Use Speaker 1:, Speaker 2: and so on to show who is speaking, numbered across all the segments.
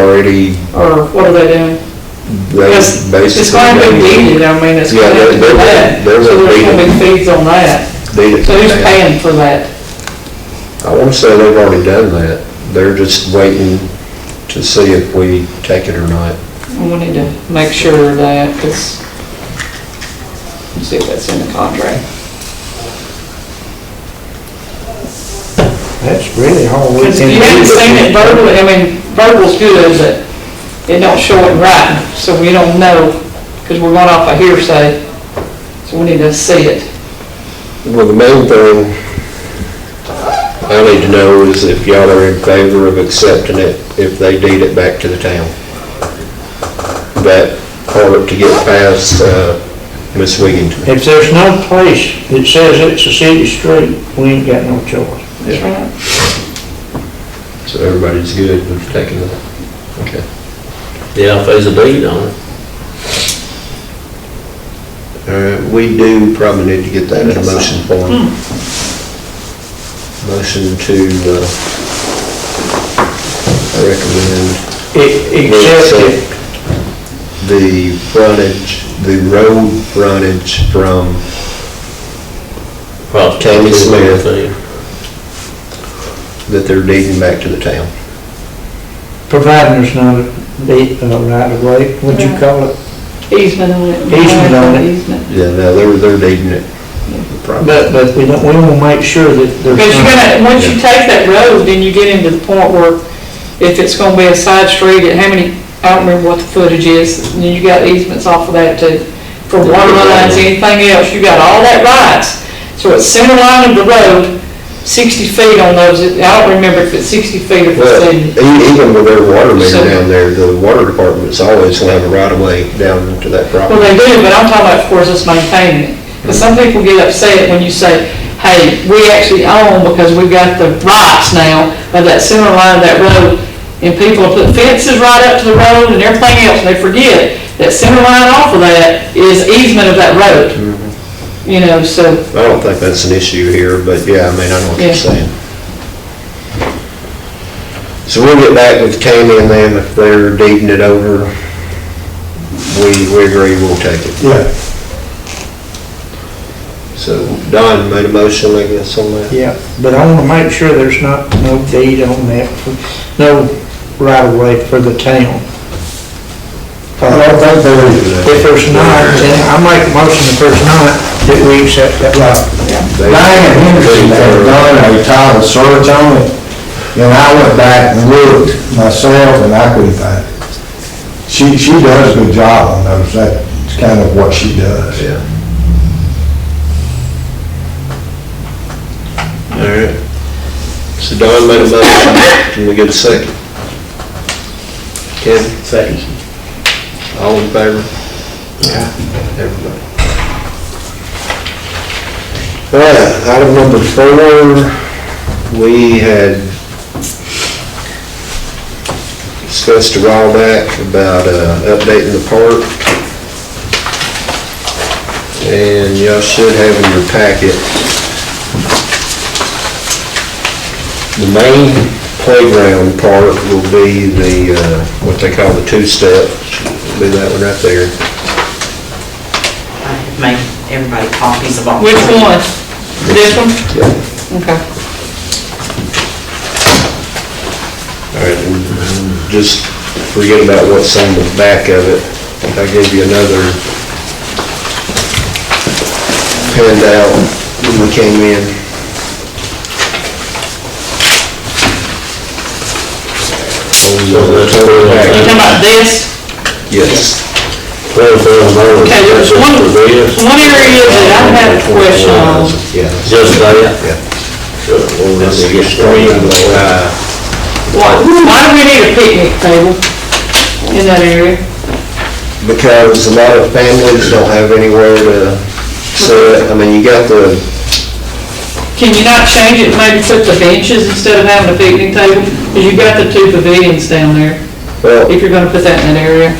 Speaker 1: already,
Speaker 2: or what are they doing?
Speaker 1: they
Speaker 2: Because
Speaker 1: basically.
Speaker 2: it's going to be deeded, I mean, it's
Speaker 1: Yeah,
Speaker 2: going
Speaker 1: they're-
Speaker 2: to be
Speaker 1: they're
Speaker 2: that, so
Speaker 1: gonna-
Speaker 2: there's
Speaker 1: they're gonna
Speaker 2: going to be fees on that.
Speaker 1: deed it
Speaker 2: So who's
Speaker 1: now.
Speaker 2: paying for that?
Speaker 1: I want to say they've already done that. They're just waiting to see if we take it or not.
Speaker 2: And We need to make sure of that, because, see if that's in the contract.
Speaker 3: That's really all we
Speaker 2: Because
Speaker 3: can
Speaker 2: you haven't
Speaker 3: do.
Speaker 2: seen it verbally, I mean, verbal's good, but it don't show it right, so we don't know, because we're going off a hearsay, so we need to see it.
Speaker 1: Well, the main thing I need to know is if y'all are in favor of accepting it, if they deed it back to the town. That part to get past uh, Miss Wiggington.
Speaker 3: If there's no place that says it's a city street, we ain't got no choice.
Speaker 2: That's right.
Speaker 1: So everybody's good with taking it. Okay.
Speaker 4: Yeah, if there's a deed on it.
Speaker 1: All right, we do probably need to get that in a motion form.
Speaker 2: Hmm.
Speaker 1: Motion to uh, recommend
Speaker 3: E-
Speaker 1: accept
Speaker 3: Except if,
Speaker 1: the frontage, the road frontage from,
Speaker 4: Probably
Speaker 1: Tammy Smith.
Speaker 4: thing.
Speaker 1: that they're deeding back to the town.
Speaker 3: providing there's not a deed, uh, right of way, what'd you call it?
Speaker 2: Easement on it.
Speaker 3: Easement on it.
Speaker 2: Easement.
Speaker 1: Yeah, no, they're, they're deeding it. Probably.
Speaker 3: But, but we don't, we wanna make sure that there's
Speaker 2: Because you're
Speaker 3: not.
Speaker 2: gonna, once you take that road, then you get into the point where if it's gonna be a side street, at how many, I don't remember what the footage is, and you got easements off of that too. For water lines, anything else, you got all that rights. So it's center line of the road, sixty feet on those, I don't remember if it's sixty feet or if
Speaker 1: Well, e-
Speaker 2: it's.
Speaker 1: even with their water main
Speaker 2: So-
Speaker 1: down there, the water department's always gonna have a right of way down to that
Speaker 2: Well,
Speaker 1: property.
Speaker 2: they do, but I'm talking about, of course, us maintaining it. Because some people get upset when you say, hey, we actually own because we've got the rights now of that center line of that road. And people put fences right up to the road and everything else, and they forget that center line off of that is easement of that road. You know, so,
Speaker 1: I don't think that's an issue here, but yeah, I mean, I know what
Speaker 2: Yeah.
Speaker 1: you're saying. So we'll get back with Tammy and them if they're deeding it over. We, we agree we'll take it.
Speaker 3: Yeah,
Speaker 1: So Don made a motion, I guess, on that.
Speaker 3: yeah, but I wanna make sure there's not no deed on that, no right of way for the town. Uh, If there's not, then I make a motion if there's not, that we accept that right.
Speaker 1: They-
Speaker 5: Diane Henderson had done a title search on it, and I went back and looked myself, and I couldn't find it. She, she does a good job on those, that's kind of what she does.
Speaker 1: Yeah. All right. So Don made a motion, can we get a second? Kevin? Second. All in favor? Yeah. Everybody. All right, item number four, we had discussed a while back about uh, updating the park. And y'all should have in your packet the main playground part will be the, uh, what they call the two-step, be that one right there.
Speaker 6: I have made everybody copies of all.
Speaker 2: which
Speaker 6: three.
Speaker 2: one? This one? Okay.
Speaker 1: All right, and just forget about what's on the back of it. I gave you another handout when we came in. On the total
Speaker 2: You talking
Speaker 1: package,
Speaker 2: about this?
Speaker 1: Yes.
Speaker 2: Okay, there's one, one area that I had a question on.
Speaker 1: Yeah.
Speaker 4: Just that.
Speaker 1: Yeah.
Speaker 4: Sure, we'll run
Speaker 1: That's
Speaker 4: it
Speaker 1: the
Speaker 4: against the-
Speaker 1: extreme, uh,
Speaker 2: Why, why do we need a picnic table in that area?
Speaker 1: because a lot of families don't have anywhere to sit. I mean, you got the,
Speaker 2: Can you not change it, maybe put the benches instead of having a picnic table? Because you've got the two pavilions down there,
Speaker 1: well,
Speaker 2: if you're gonna put that in that area.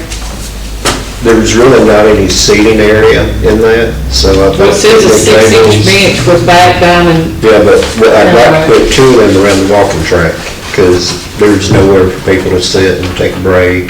Speaker 1: there's really not any seating area in that, so I think.
Speaker 2: Well, it says a six-inch
Speaker 1: tables-
Speaker 2: bench with back down and,
Speaker 1: Yeah, but but I'd like to put two in around the walking track, because there's nowhere for people to sit and take a break